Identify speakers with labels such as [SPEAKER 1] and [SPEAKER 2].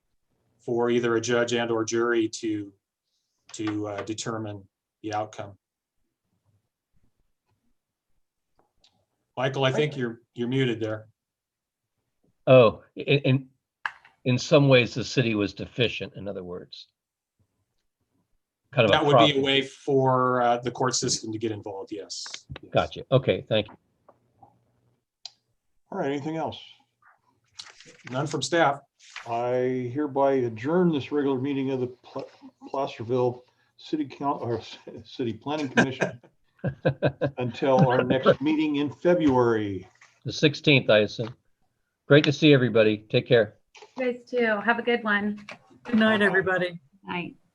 [SPEAKER 1] for either a judge and or jury to, to uh, determine the outcome. Michael, I think you're, you're muted there.
[SPEAKER 2] Oh, i- i- in, in some ways, the city was deficient, in other words. Kind of
[SPEAKER 1] That
[SPEAKER 2] a
[SPEAKER 1] would be a
[SPEAKER 2] problem.
[SPEAKER 1] way for uh, the court system to get involved, yes. Yes.
[SPEAKER 2] Gotcha. Okay, thank you.
[SPEAKER 3] All right, anything else?
[SPEAKER 1] None from staff.
[SPEAKER 3] I hereby adjourn this regular meeting of the Pla- Placerville City Council, or City Planning Commission until our next meeting in February.
[SPEAKER 2] The 16th, I assume. Great to see everybody. Take care.
[SPEAKER 4] You guys too. Have a good one.
[SPEAKER 5] Good night, everybody.
[SPEAKER 4] Night.